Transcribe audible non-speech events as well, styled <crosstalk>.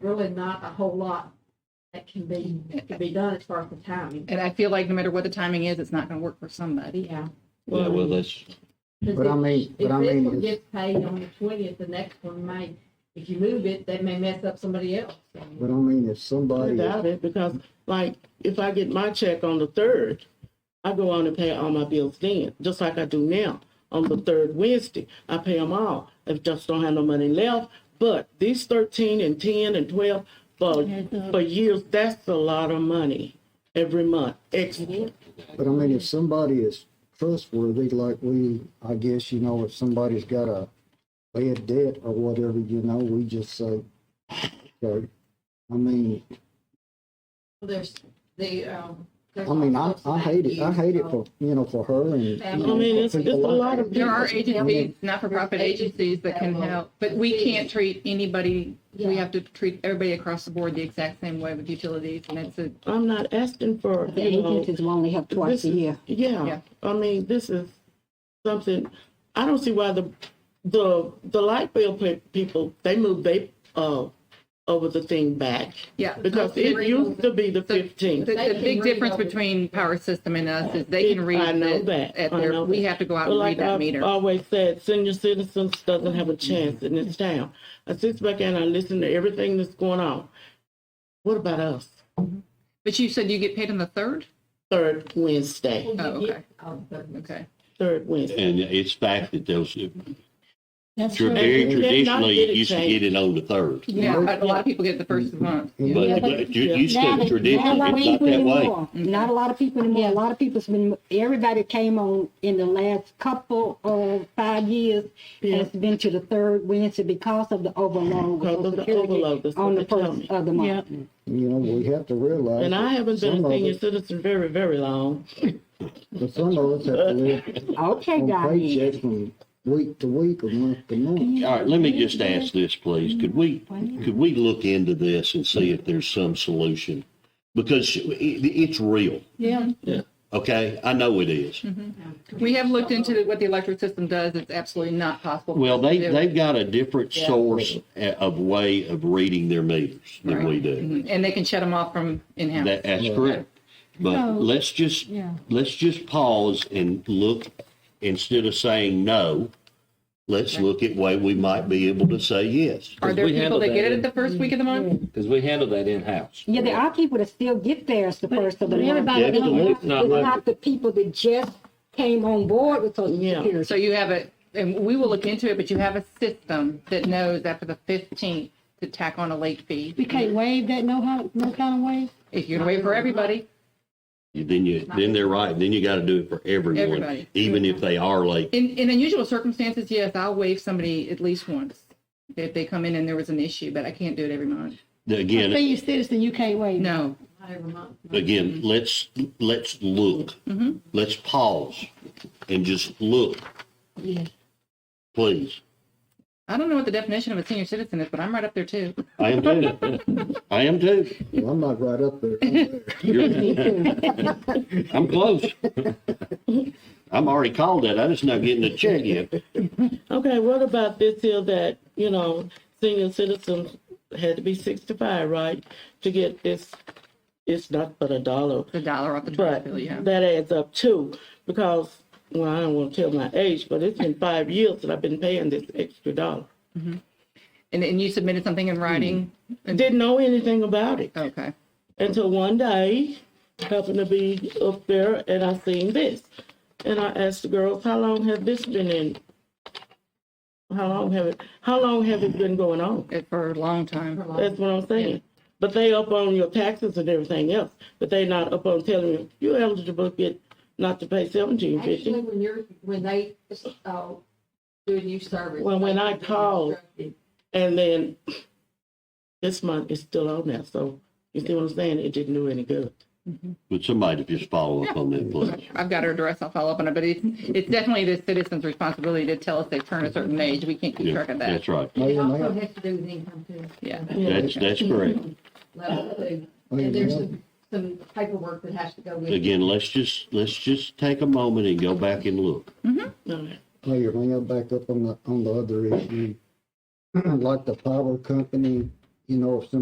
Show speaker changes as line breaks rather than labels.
really not a whole lot that can be, can be done as far as the timing.
And I feel like no matter what the timing is, it's not going to work for somebody.
Yeah.
Yeah, well, that's,
Because
But I
if-
mean,
If
but I
this one
mean,
gets paid on the twentieth, the next one may, if you move it, they may mess up somebody else.
but I mean, if
I
somebody,
doubt it because, like, if I get my check on the third, I go on and pay all my bills then, just like I do now. On the third Wednesday, I pay them all. I just don't have no money left. But these thirteen and ten and twelve for for years, that's a lot of money every month. Extra.
but I mean, if somebody is trustworthy, like we, I guess, you know, if somebody's got a bad debt or whatever, you know, we just say, okay. I mean,
There's the, um.
I mean, I, I hate it. I hate it for, you know, for her and. you
I
I
know,
mean,
for
it's, it's a
people like
lot
that.
of
There are
people.
agencies, not-for-profit agencies that can help, but we can't treat anybody, we have to treat everybody across the board the exact same way with utilities, and it's a,
I'm not asking for,
The
you know,
agencies will only have twice
This
a
is-
year.
Yeah,
Yeah.
I mean, this is something, I don't see why the, the, the light bill pe- people, they move they, uh, over the thing back.
yeah.
Because
They-
it used to be the
So- The,
fifteenth.
the big difference between power system and us is they can read
I know
it
that.
at
I
their,
know
we
that.
have to go out
But
and read
like uh,
that
I've
meter.
always said, senior citizens doesn't have a chance in this town. I sit back and I listen to everything that's going on. What about us?
But you said you get paid on the third?
Third Wednesday,
Oh, okay.
okay.
Okay.
third Wednesday.
and it's fact that those,
That's
tr-
They
very
did not
traditionally,
get
you
it
used to
changed.
get it on the third.
Yeah, but a lot of people get the first
Mm-hmm.
of the month.
Yeah.
But, but you, you said
Now that- not a lot
traditionally,
of
it's not
people
that way.
anymore. Mm-hmm. Not a lot of people anymore. A lot of people's been, everybody came on in the last couple of five years has been to the third Wednesday because of the overload. with
Because of the
Social Security
overload, that's what
On
they
the
tell
first
me.
of the month. Mm-hmm.
You know, we have to realize.
And I
that
haven't been
some
a
of
senior
us-
citizen very, very long.
But some of us have to live
Okay,
on
Diane.
paychecks from week to week or month to month.
All right, let me just ask this, please. Could we, could we look into this and see if there's some solution? Because it, it's real,
Yeah.
okay? I know it is.
We have looked into what the electric system does. It's absolutely not possible. for
Well,
us to
they,
do.
they've got a different source uh, of way of reading their meters than we do.
Mhm. And they can shut them off from in-house.
That, that's correct. But let's just, let's just pause and look, instead of saying no, let's look at way we might be able to say yes.
Are there
we
people
handle
that
that
get it
in-
at the first week of the month?
Because we handle that in-house.
Yeah, there are people that still get theirs the first of the month.
Yeah,
It's
but
not-
it's not
it's
like-
not the people that just came on board with social
Yeah.
security.
So you have a, and we will look into it, but you have a system that knows after the fifteenth to tack on a late fee.
We can't waive that no, how- no kind of waive?
If you're gonna wait for everybody,
Then you, then they're right, then you gotta do it for everyone,
Everybody.
even if they are late.
in, in unusual circumstances, yes, I'll waive somebody at least once. If they come in and there was an issue, but I can't do it every month.
Again,
Senior citizen, you can't waive.
No,
Not every month. no.
again, let's, let's look. Let's pause and just look. Please.
I don't know what the definition of a senior citizen is, but I'm right up there too.
I am too. I am too.
Well, I'm not right up there. I'm there.
<laughs> I'm close. I'm already called that. I just not getting a check yet.
Okay, what about this here that, you know, senior citizens had to be sixty-five, right, to get this, it's not but a dollar,
The dollar off the trash
but
bill, yeah.
that adds up too, because, well, I don't wanna tell my age, but it's been five years that I've been paying this extra dollar.
And, and you submitted something in writing?
Didn't know anything about
Hmm.
it
Okay.
until one day, happened to be up there and I seen this. And I asked the girls, how long have this been in? How long have it, how long have it been going on?
It for a long time.
That's what I'm saying. But they up on your taxes and everything else, but they not up on telling you, you're eligible to get, not to pay seventeen
Actually,
fifty.
when you're, when they, uh, do a new service.
Well, when I
they-
called- And then this month is still on there, so you see what I'm saying? It didn't do any good.
Would somebody just follow up on that, please?
I've got her address. I'll follow up on it, but it's, it's definitely the citizen's responsibility to tell us they turn a certain age. We can't keep
Yeah,
track of that.
That's right.
It
Mayor,
also
ma'am,
has to do with income too.
Yeah.
That's, that's correct.
Level two.
Mayor,
And there's
ma'am.
some, some paperwork that has to go with it.
Again, let's just, let's just take a moment and go back and look.
Okay.
Mayor, may I back <clears throat> up on the, on the other issue? Like the power company, you know, if some